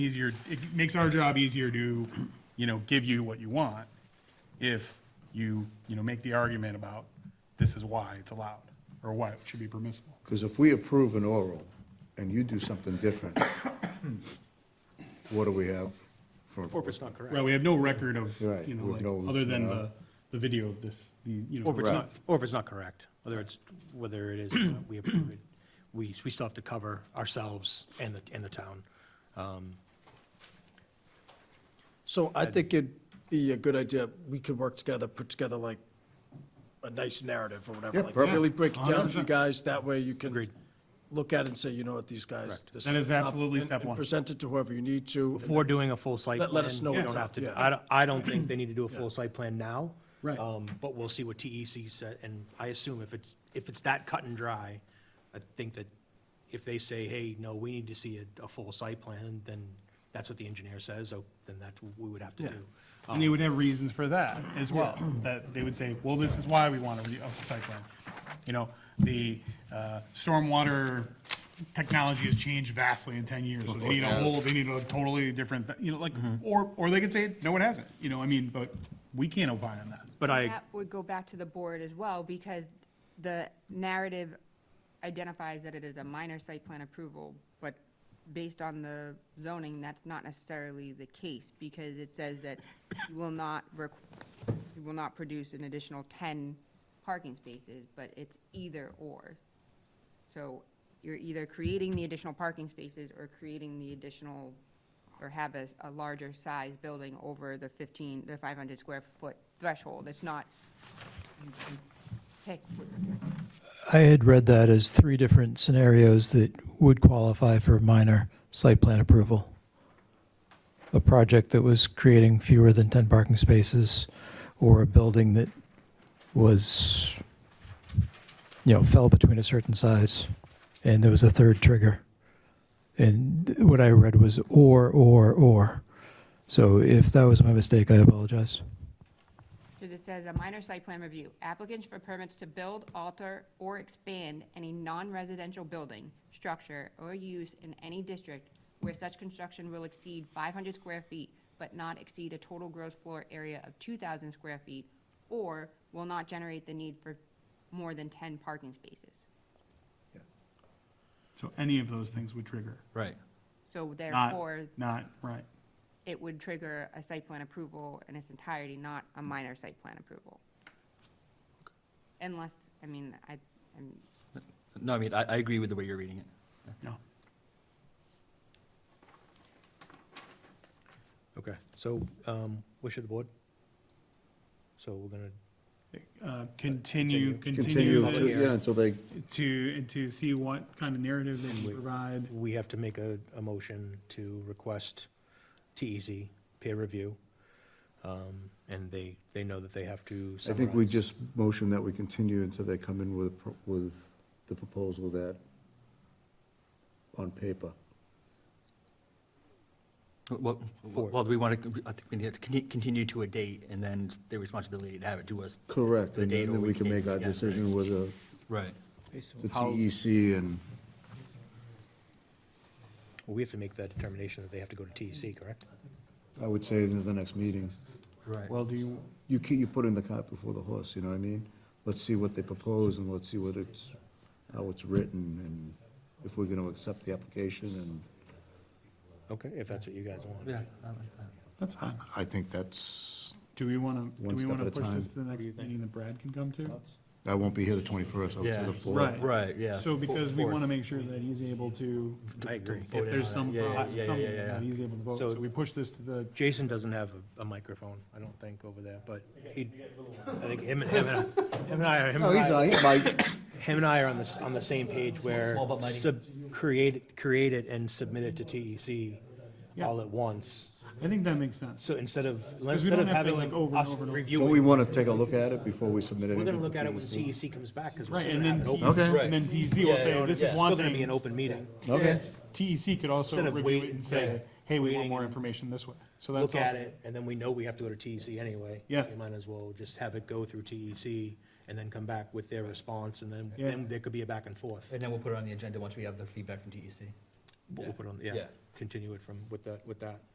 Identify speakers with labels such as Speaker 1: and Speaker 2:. Speaker 1: easier, it makes our job easier to, you know, give you what you want if you, you know, make the argument about this is why it's allowed or why it should be permissible.
Speaker 2: Because if we approve an oral and you do something different, what do we have for
Speaker 3: Or if it's not correct.
Speaker 1: Right, we have no record of,
Speaker 2: Right,
Speaker 1: you
Speaker 2: we have
Speaker 1: know,
Speaker 2: no-
Speaker 1: like, other than
Speaker 2: no.
Speaker 1: the, the video of this, the, you know.
Speaker 3: Or if it's not,
Speaker 2: Correct.
Speaker 3: or if it's not correct, whether it's, whether it is, we approve it, we, we still have to cover ourselves and the, and the town.
Speaker 4: So I think it'd be a good idea, we could work together, put together like a nice narrative or whatever.
Speaker 2: Yeah,
Speaker 4: like
Speaker 2: perfect.
Speaker 4: Really break it down for you
Speaker 1: 100%.
Speaker 4: guys, that way you can
Speaker 3: Agreed.
Speaker 4: look at it and say, you know what, these guys. this
Speaker 1: That is
Speaker 4: what's up,
Speaker 1: absolutely
Speaker 4: and-
Speaker 1: step
Speaker 4: and
Speaker 1: one.
Speaker 4: Present it to whoever you need to. and
Speaker 3: Before
Speaker 4: then-
Speaker 3: doing a full site plan.
Speaker 4: Let- let us know
Speaker 3: we
Speaker 4: what's
Speaker 3: don't have
Speaker 4: up,
Speaker 3: to-
Speaker 4: yeah.
Speaker 3: I don't, I don't think they need to do a full site plan now.
Speaker 1: Right.
Speaker 3: Um, But we'll see what TEC said, and I assume if it's, if it's that cut and dry, I think that if they say, hey, no, we need to see a, a full site plan, then that's what the engineer says, so then that's what we would have to do.
Speaker 1: And they would have reasons for that as well, that they would say, well, this is why we want a re- a site plan. You know, the uh, stormwater technology has changed vastly in 10 years, so they need a whole, they need a totally different, th- you know, like, or, or they could say, no, it hasn't, you know, I mean, but we can't opine on that.
Speaker 3: But I.
Speaker 5: That would go back to the board as well, because the narrative identifies that it is a minor site plan approval, but based on the zoning, that's not necessarily the case, because it says that you will not, requ- you will not produce an additional ten parking spaces, but it's either or. So you're either creating the additional parking spaces or creating the additional, or have a, a larger size building over the fifteen, the five hundred square foot threshold. It's not, you can pick,
Speaker 6: I had read that as three different scenarios that would qualify for minor site plan approval. A project that was creating fewer than 10 parking spaces, or a building that was, you know, fell between a certain size, and there was a third trigger. And what I read was or, or, or. So if that was my mistake, I apologize.
Speaker 5: because it says a minor site plan review. Applicants for permits to build, alter, or expand any non-residential building, structure, or use in any district where such construction will exceed five hundred square feet, but not exceed a total gross floor area of two thousand square feet, or will not generate the need for more than ten parking spaces.
Speaker 1: So any of those things would trigger,
Speaker 7: Right.
Speaker 5: So
Speaker 1: not,
Speaker 5: therefore,
Speaker 1: not, right.
Speaker 5: it would trigger a site plan approval in its entirety, not a minor site plan approval. Unless, I mean, I, I'm,
Speaker 7: No, I mean, I, I agree with the way you're reading it.
Speaker 1: No.
Speaker 3: Okay, so, um, wish of the board? So we're gonna,
Speaker 1: Uh, Continue,
Speaker 2: Continue,
Speaker 1: continue
Speaker 2: to- yeah,
Speaker 1: this
Speaker 2: until they,
Speaker 1: to, and to see what kind of narrative they can provide.
Speaker 3: we have to make a, a motion to request TEC peer review. Um, and they, they know that they have to
Speaker 2: I
Speaker 3: summarize.
Speaker 2: think we just motion that we continue until they come in with, a pro- with the proposal that on paper.
Speaker 7: Well, well, do we want to, I think we need to conti- continue to a date, and then it's their responsibility to have it to us.
Speaker 2: Correct,
Speaker 7: The
Speaker 2: and
Speaker 7: date
Speaker 2: then
Speaker 7: or
Speaker 2: then we can make our
Speaker 7: yeah, right.
Speaker 2: decision with the
Speaker 7: Right.
Speaker 2: the TEC E and,
Speaker 3: We have to make that determination that they have to go to TEC, correct?
Speaker 2: I would say, in the next meeting.
Speaker 7: Right.
Speaker 1: Well, do you,
Speaker 2: You keep, you put in the cart before the horse, you know what I mean? Let's see what they propose and let's see what it's, how it's written and if we're gonna accept the application and
Speaker 3: Okay, if that's what you guys want.
Speaker 7: Yeah. um,
Speaker 1: that's fine.
Speaker 2: I think that's,
Speaker 1: Do we want to, do
Speaker 2: One
Speaker 1: we
Speaker 2: step
Speaker 1: want
Speaker 2: at
Speaker 1: to
Speaker 2: a
Speaker 1: push
Speaker 2: time.
Speaker 1: this to the next meeting that Brad can come to?
Speaker 2: I won't be here the twenty-first, I'll be
Speaker 7: Yeah.
Speaker 2: the fourth.
Speaker 7: Right, yeah.
Speaker 1: So because we
Speaker 7: Fourth.
Speaker 1: want to make sure that he's able to,
Speaker 3: I agree.
Speaker 1: if there's some,
Speaker 7: Yeah, yeah,
Speaker 1: problem,
Speaker 7: yeah,
Speaker 1: something,
Speaker 7: yeah, yeah.
Speaker 1: that he's able to vote, so
Speaker 3: So-
Speaker 1: we push this to the,
Speaker 3: Jason doesn't have a, a microphone, I don't think, over there, but he, I think him, and- him and, him and I, are- him
Speaker 2: Oh,
Speaker 3: and
Speaker 2: he's,
Speaker 3: I.
Speaker 2: not here, Mike.
Speaker 3: Him and I are on the, s- on the same page where sub, create, it- create it and submit it to TEC all at once.
Speaker 1: I think that makes sense.
Speaker 3: So instead of,
Speaker 1: we
Speaker 3: instead
Speaker 1: don't
Speaker 3: of
Speaker 1: have to,
Speaker 3: having
Speaker 1: like, over and
Speaker 3: us
Speaker 1: over and over.
Speaker 3: review
Speaker 2: Don't we
Speaker 3: it,
Speaker 2: wanna take a look at it before we submit it?
Speaker 3: we're gonna look at
Speaker 2: E
Speaker 3: it E when TEC comes back, because we're
Speaker 1: Right,
Speaker 3: still
Speaker 1: and then
Speaker 3: gonna have an
Speaker 1: TEC,
Speaker 3: open.
Speaker 2: Okay.
Speaker 1: and then TEC will say, this is
Speaker 3: It's
Speaker 1: one
Speaker 3: still gonna be an
Speaker 1: thing.
Speaker 3: open meeting.
Speaker 2: Okay,
Speaker 1: TEC could also
Speaker 3: Instead of
Speaker 1: review it
Speaker 3: wait-
Speaker 1: and say,
Speaker 3: yeah,
Speaker 1: hey, we want
Speaker 3: waiting
Speaker 1: more
Speaker 3: and
Speaker 1: information this way. So that's
Speaker 3: Look at
Speaker 1: also,
Speaker 3: it, and then we know we have to go to TEC anyway.
Speaker 1: Yeah.
Speaker 3: You might as well just have it go through TEC and then come back with their response, and then,
Speaker 1: Yeah.
Speaker 3: then there could be a back and forth.
Speaker 7: E And then we'll put it on the agenda once we have the feedback from TEC.
Speaker 3: But We'll put on, yeah. continue it from, with that, with that.